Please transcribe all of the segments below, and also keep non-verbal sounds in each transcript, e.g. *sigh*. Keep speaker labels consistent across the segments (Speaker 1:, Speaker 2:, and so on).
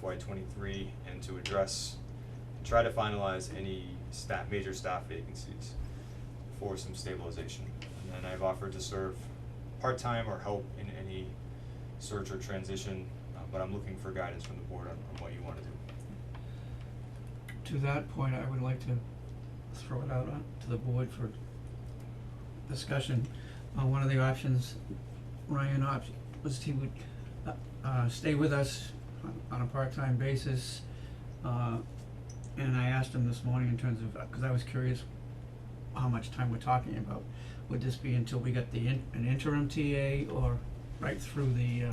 Speaker 1: FY twenty-three and to address, try to finalize any staff, major staff vacancies for some stabilization. And then I've offered to serve part-time or help in any search or transition, uh, but I'm looking for guidance from the board on, on what you wanna do.
Speaker 2: To that point, I would like to throw it out on, to the board for discussion. Uh, one of the options, Ryan opt, was he would, uh, uh, stay with us on, on a part-time basis. Uh, and I asked him this morning in terms of, uh, cause I was curious how much time we're talking about. Would this be until we got the in, an interim TA or right through the, uh,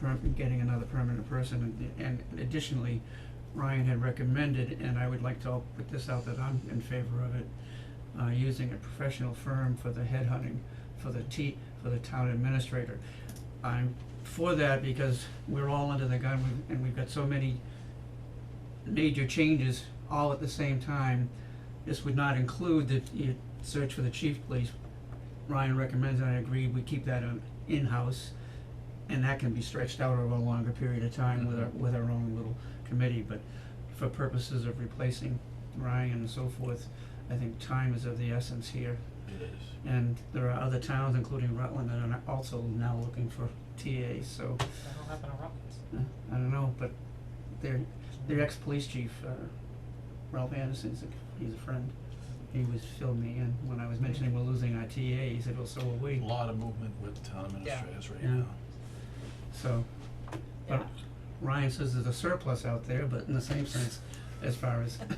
Speaker 2: perm, getting another permanent person? And, and additionally, Ryan had recommended, and I would like to put this out that I'm in favor of it, uh, using a professional firm for the headhunting, for the T, for the town administrator. I'm for that because we're all under the gun we've- and we've got so many major changes all at the same time. This would not include the, you search for the chief police. Ryan recommends, and I agree, we keep that on in-house, and that can be stretched out over a longer period of time with our, with our own little committee, but for purposes of replacing Ryan and so forth, I think time is of the essence here.
Speaker 3: It is.
Speaker 2: And there are other towns, including Rutland, that are also now looking for TAs, so,
Speaker 4: That'll happen in Rutland.
Speaker 2: uh, I don't know, but their, their ex-police chief, uh, Ralph Anderson's, a- he's a friend. He was filled me in when I was mentioning we're losing our TA, he said, well, so are we,
Speaker 3: A lot of movement with town
Speaker 4: Yeah.
Speaker 3: administrators right
Speaker 2: Yeah.
Speaker 3: now.
Speaker 2: so. but
Speaker 4: Yeah.
Speaker 2: Ryan says there's a surplus out there, but in the same sense, as far as, *laughs*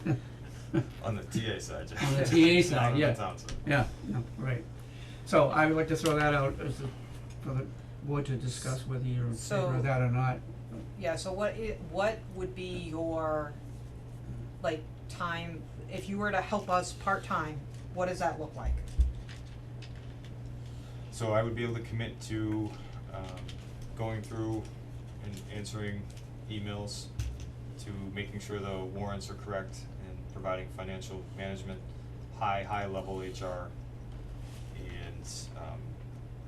Speaker 1: On the TA side, Jeff.
Speaker 2: On the TA
Speaker 1: *laughs*
Speaker 2: side,
Speaker 1: Not on the
Speaker 2: yeah.
Speaker 1: town side.
Speaker 2: Yeah, no, right. So I would like to throw that out as the, for the board to discuss whether you're in favor
Speaker 4: So-
Speaker 2: of that or not.
Speaker 4: Yeah, so what i- what would be your, like, time, if you were to help us part-time, what does that look like?
Speaker 1: So I would be able to commit to um going through and answering emails, to making sure the warrants are correct and providing financial management, high, high level HR and um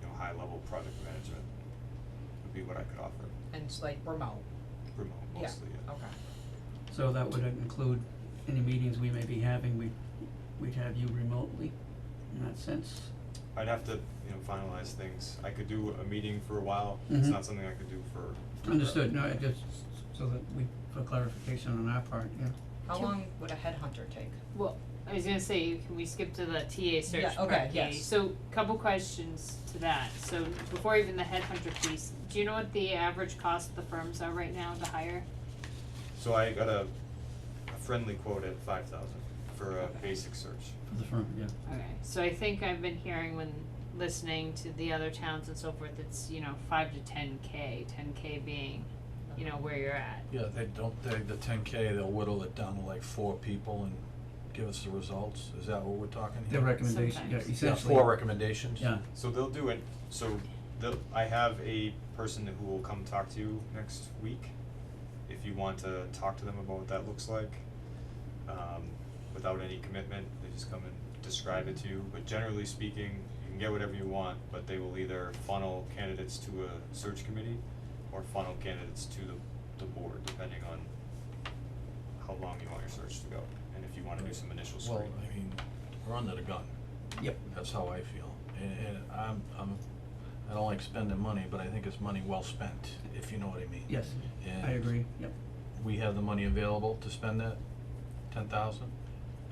Speaker 1: you know, high level project management would be what I could offer
Speaker 4: And it's like remote,
Speaker 1: remote
Speaker 4: Yeah.
Speaker 1: mostly, yeah.
Speaker 4: okay.
Speaker 2: So that would include any meetings we may be having, we, we'd have you remotely in that sense.
Speaker 1: I'd have to, you know, finalize things. I could do a meeting for a while. It's
Speaker 2: Mhm.
Speaker 1: not something I could do for forever.
Speaker 2: Understood, no, it just, so that we, for clarification on our part, yeah.
Speaker 4: How
Speaker 5: Can-
Speaker 4: long would a headhunter take?
Speaker 5: Well, I was gonna say, can we skip to the TA search
Speaker 4: Yeah,
Speaker 5: part?
Speaker 4: okay,
Speaker 5: A?
Speaker 4: yes.
Speaker 5: So, couple questions to that, so before even the headhunter piece, do you know what the average cost the firms are right now to hire?
Speaker 1: So I got a, a friendly quote at five thousand for a basic search.
Speaker 2: For the firm, yeah.
Speaker 5: Okay, so I think I've been hearing when listening to the other towns and so forth, it's, you know, five to ten K, ten K being, you know, where you're at.
Speaker 3: Yeah, they don't, they, the ten K, they'll whittle it down to like four people and give us the results, is that what we're talking here?
Speaker 2: Their recommendation, yeah,
Speaker 5: Sometimes. Yeah,
Speaker 2: essentially.
Speaker 3: Yeah, four recommendations?
Speaker 2: Yeah,
Speaker 1: So they'll do it, so they'll, I have a person who will come talk to you next week, if you want to talk to them about what that looks like. Um, without any commitment, they just come and describe it to you, but generally speaking, you can get whatever you want, but they will either funnel candidates to a search committee or funnel candidates to the, the board, depending on how long you want your search to go, and if you wanna do some initial
Speaker 3: Well,
Speaker 1: screening.
Speaker 3: I mean, we're under the gun,
Speaker 2: yep,
Speaker 3: that's how I feel, and, and I'm, I'm, I don't like spending money, but I think it's money well spent, if you know what I mean.
Speaker 2: yes, I
Speaker 3: And
Speaker 2: agree, yep.
Speaker 3: we have the money available to spend that, ten thousand?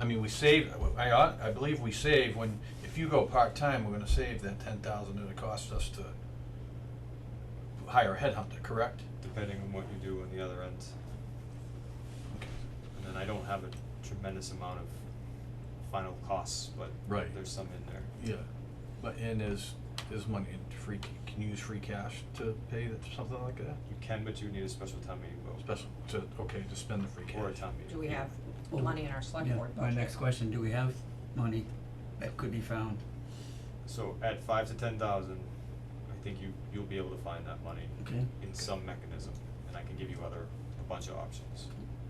Speaker 3: I mean, we save, I, ought- I believe we save when, if you go part-time, we're gonna save that ten thousand that it costs us to hire a headhunter, correct?
Speaker 1: depending on what you do on the other end. And then I don't have a tremendous amount of final costs, but
Speaker 3: Right.
Speaker 1: there's some in there.
Speaker 3: Yeah. But, and is, is money in free, ca- can you use free cash to pay that, something like that?
Speaker 1: You can, but you need a special town meeting vote
Speaker 3: Special, to, okay, to spend the free cash.
Speaker 1: or a town meeting.
Speaker 4: Do we have
Speaker 2: Oh,
Speaker 4: money in our select
Speaker 2: Yeah,
Speaker 4: board
Speaker 2: my
Speaker 4: budget?
Speaker 2: next question, do we have money that could be found?
Speaker 1: So at five to ten thousand, I think you, you'll be able to find that money
Speaker 2: Okay.
Speaker 1: in some mechanism, and I can give you other, a bunch of options.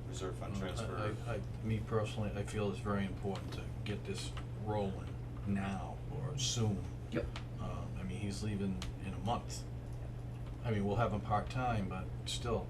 Speaker 1: Reserve fund
Speaker 3: Mm, I-
Speaker 1: transfer.
Speaker 3: I, I, me personally, I feel it's very important to get this rolling now or soon.
Speaker 2: Yep.
Speaker 3: Um, I mean, he's leaving in a month. I mean, we'll have him part-time, but still,